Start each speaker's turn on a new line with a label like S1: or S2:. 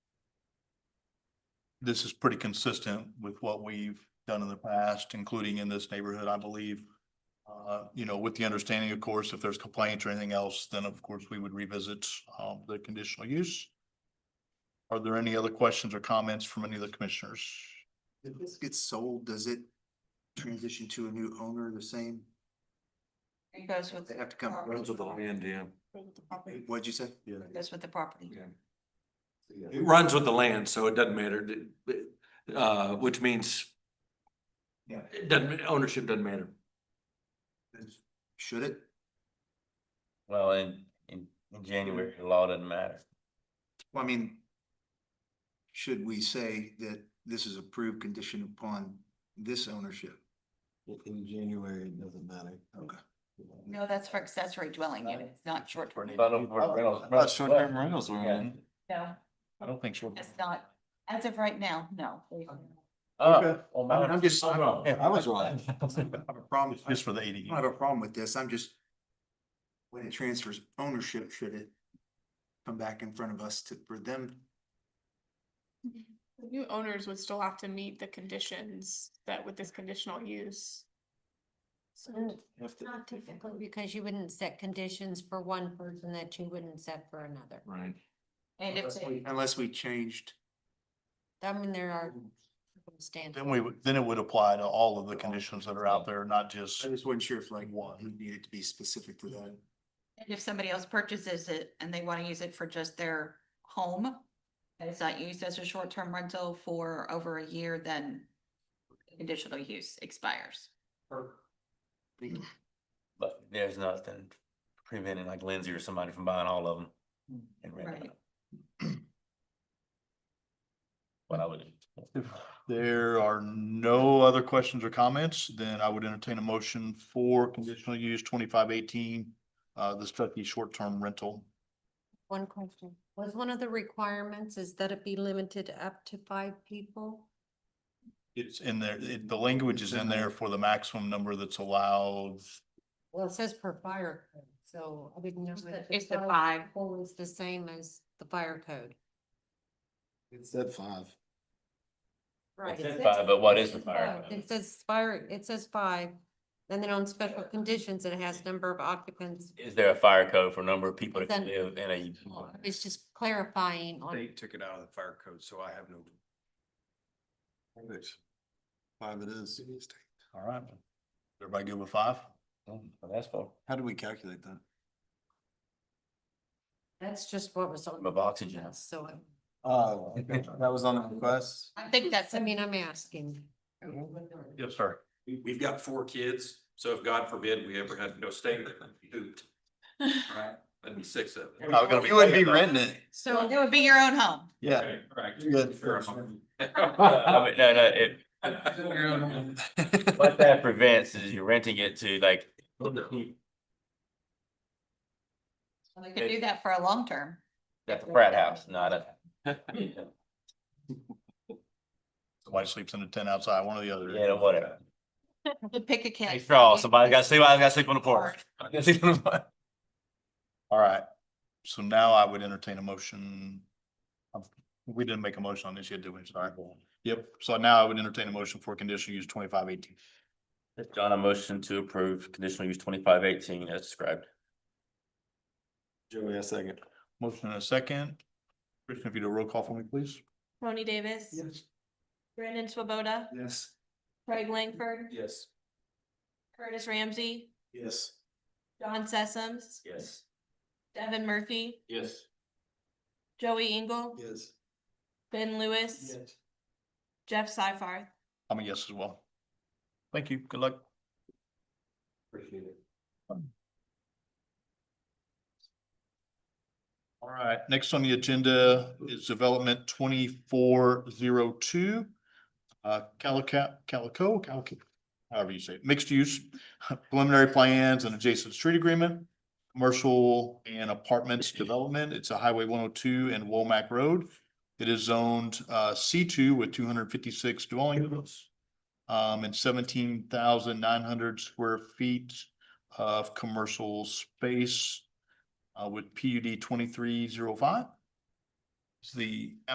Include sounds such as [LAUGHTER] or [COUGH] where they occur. S1: this is pretty consistent with what we've done in the past, including in this neighborhood, I believe. Uh, you know, with the understanding, of course, if there's complaints or anything else, then of course we would revisit, um, the conditional use. Are there any other questions or comments from any of the commissioners?
S2: If this gets sold, does it transition to a new owner the same?
S3: It goes with.
S2: They have to come-
S3: property.
S2: Runs
S4: Those are the land, yeah,
S3: Goes with the property.
S2: What'd you say? Yeah.
S3: It Goes with the property.
S4: yeah. It runs with the land, so it doesn't matter, d- b- uh, which means
S2: Yeah.
S4: it doesn't, ownership doesn't matter.
S2: Should it?
S5: Well, in, in, in January, the law doesn't matter.
S2: Well, I mean, should we say that this is approved condition upon this ownership?
S6: In January, it doesn't matter.
S2: Okay.
S3: No, that's for accessory dwelling units, not short term.
S5: But uh, of- for rentals- rentals-
S6: Short-term rentals were
S5: Yeah.
S6: on.
S3: No,
S5: I don't think so.
S3: it's not. As of right now, no.
S5: Uh, well,
S2: I mean,
S5: mine-
S2: I'm just, I don't
S6: I was wrong.
S2: have a problem,
S1: [LAUGHS]
S2: I
S1: Just for the
S2: don't have
S1: ADU.
S2: a problem with this, I'm just, when it transfers ownership, should it come back in front of us to, for them?
S7: The New owners would still have to meet the conditions that with this conditional use.
S3: Mm.
S7: So
S6: If the-
S8: Not typically, because you wouldn't set conditions for one person that you wouldn't set for another.
S4: Right.
S3: And if
S2: Unless we-
S3: they,
S2: Unless we changed.
S8: I mean, there are
S3: Mm.
S8: circumstances.
S1: Then we, would then it would apply to all of the conditions that are out there, not just.
S2: I just wasn't sure if like,
S1: One.
S2: we needed to be specific to that.
S3: and if somebody else purchases it and they want to use it for just their home. And it's not used as a short term rental for over a year, then conditional use expires.
S5: But there's nothing preventing like Lindsay or somebody from buying all of them and renting
S3: Right.
S5: them. [CLEARS THROAT] What I would.
S1: If there are no other questions or comments, then I would entertain a motion for conditional use twenty-five eighteen, uh, the Stuckey short-term rental.
S8: One question, was one of the requirements is that it be limited up to five people?
S1: It's in there, it- the language is in there for the maximum number that's allowed.
S8: Well, it says per fire code, so I didn't know. if
S3: It's the five.
S8: people was the same as the fire code.
S6: It said five.
S8: Right.
S5: says five, but what is the
S8: It says
S5: fire
S8: five.
S5: code?
S8: It says fire, it says five, and then on special conditions, it has number of occupants.
S5: Is there a fire code for number of people that can
S8: Then-
S5: live in a?
S8: It's just clarifying on.
S9: They took it out of the fire code, so I have no.
S6: Five it is.
S1: All right. Everybody good with five?
S5: Well, That's for,
S6: How do we calculate that?
S8: That's just what was on.
S5: Of oxygen.
S8: Yes, So, I-
S6: Oh, that was on the request?
S3: I think that's,
S8: I [LAUGHS] mean, I'm asking.
S1: Yes, sir.
S9: We've got four kids, so if God forbid we ever had no state, that would be pooped. Right. That'd be six of them.
S1: Not gonna
S6: You wouldn't be
S1: paying that.
S6: renting it.
S3: it would be your own home.
S1: Yeah.
S9: Okay, correct.
S1: Good.
S9: Sure, I'm- [LAUGHS]
S5: I [LAUGHS] mean, no, no, it, what that prevents is you're renting it to like.
S3: We could do that for a long term.
S5: That's a frat house, not a.
S1: Somebody sleeps in a tent outside, one or the other.
S5: Yeah, whatever.
S3: We'd Pick a kid.
S5: Hey, straw, somebody got to sleep, I got to sleep on the porch. I gotta sleep on the porch.
S1: All right. So now I would entertain a motion. Um, We didn't make a motion on this yet, did we? Sorry. Yep. So now I would entertain a motion for conditional use twenty-five eighteen.
S5: John, a motion to approve conditional use twenty-five eighteen as described.
S6: Joey, a second.
S1: Motion and a second. Christian, if you do a roll call for me, please.
S10: Tony Davis.
S6: Yes.
S10: Brandon Swoboda.
S6: Yes.
S10: Craig Langford.
S9: Yes.
S10: Curtis Ramsey.
S6: Yes.
S10: John Sessoms.
S5: Yes.
S10: Devin Murphy.
S9: Yes.
S10: Joey Engel.
S6: Yes.
S10: Ben Lewis. Jeff Seifarth.
S1: I'm a yes as well. Thank you. Good luck. Um,
S4: Appreciate it.
S1: All right, next on the agenda is development twenty-four zero two. Uh, Calico, Calico, Calico, however you say it, mixed use, [LAUGHS] preliminary plans and adjacent street agreement. Commercial and apartments development. It's a highway one oh two and Womack Road. It is zoned uh C two with two hundred fifty-six dwelling units. Um, and seventeen thousand nine hundred square feet of commercial space uh, with PUD twenty-three zero five. It's the